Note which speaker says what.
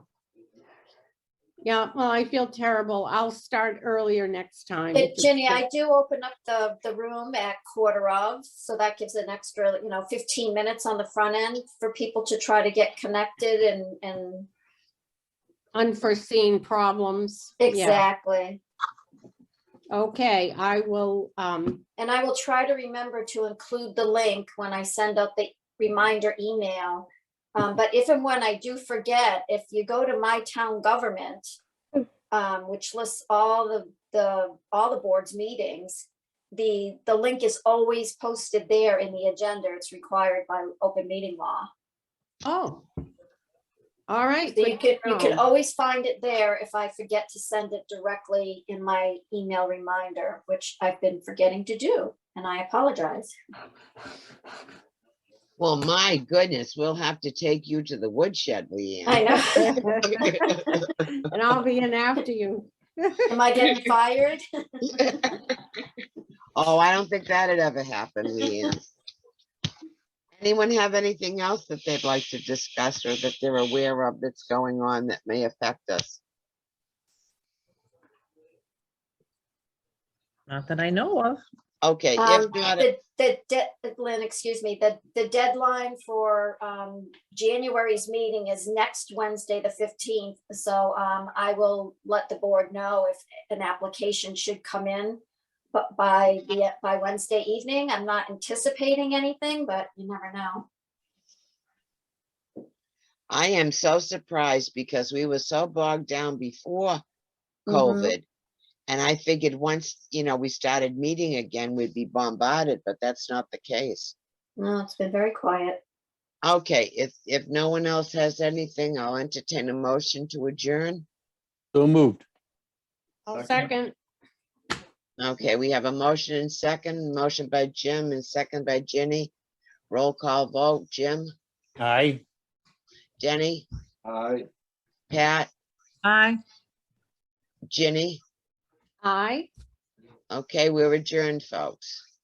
Speaker 1: Yeah, well, I feel terrible. I'll start earlier next time.
Speaker 2: But Ginny, I do open up the, the room at quarter of, so that gives an extra, you know, fifteen minutes on the front end for people to try to get connected and, and
Speaker 1: Unforeseen problems. Yeah.
Speaker 2: exactly.
Speaker 1: Okay, I will, um,
Speaker 2: And I will try to remember to include the link when I send out the reminder email. Um, but if and when I do forget, if you go to my town government, um, which lists all the, the, all the board's meetings, the, the link is always posted there in the agenda. It's required by open meeting law.
Speaker 1: oh. All right.
Speaker 2: So
Speaker 1: good
Speaker 2: you
Speaker 1: to
Speaker 2: could, you could
Speaker 1: know.
Speaker 2: always find it there if I forget to send it directly in my email reminder, which I've been forgetting to do, and I apologize.
Speaker 3: Well, my goodness, we'll have to take you to the woodshed,
Speaker 2: I
Speaker 3: Leanne.
Speaker 2: know.
Speaker 1: And I'll be in after you.
Speaker 2: Am I getting fired?
Speaker 3: Oh, I don't think that'd ever happen, Leanne. Anyone have anything else that they'd like to discuss or that they're aware of that's going on that may affect us?
Speaker 4: Not that I know of.
Speaker 3: Okay,
Speaker 2: Um,
Speaker 3: if not,
Speaker 2: The, the, de- Lynn, excuse me, the, the deadline for, um, January's meeting is next Wednesday, the fifteenth. So, um, I will let the board know if an application should come in. But by the, by Wednesday evening, I'm not anticipating anything, but you never know.
Speaker 3: I am so surprised because we were so bogged down before
Speaker 2: Mm-hmm.
Speaker 4: Mhm.
Speaker 3: COVID. And I figured once, you know, we started meeting again, we'd be bombarded, but that's not the case.
Speaker 2: No, it's been very quiet.
Speaker 3: Okay, if, if no one else has anything, I'll entertain a motion to adjourn.
Speaker 5: So moved.
Speaker 1: I'll second.
Speaker 6: Second.
Speaker 3: Okay, we have a motion and second, motion by Jim and second by Jenny. Roll call vote, Jim,
Speaker 5: Aye.
Speaker 3: Jenny,
Speaker 6: Aye.
Speaker 3: Pat,
Speaker 4: Aye.
Speaker 3: Jenny.
Speaker 1: Aye.
Speaker 3: Okay, we're adjourned, folks.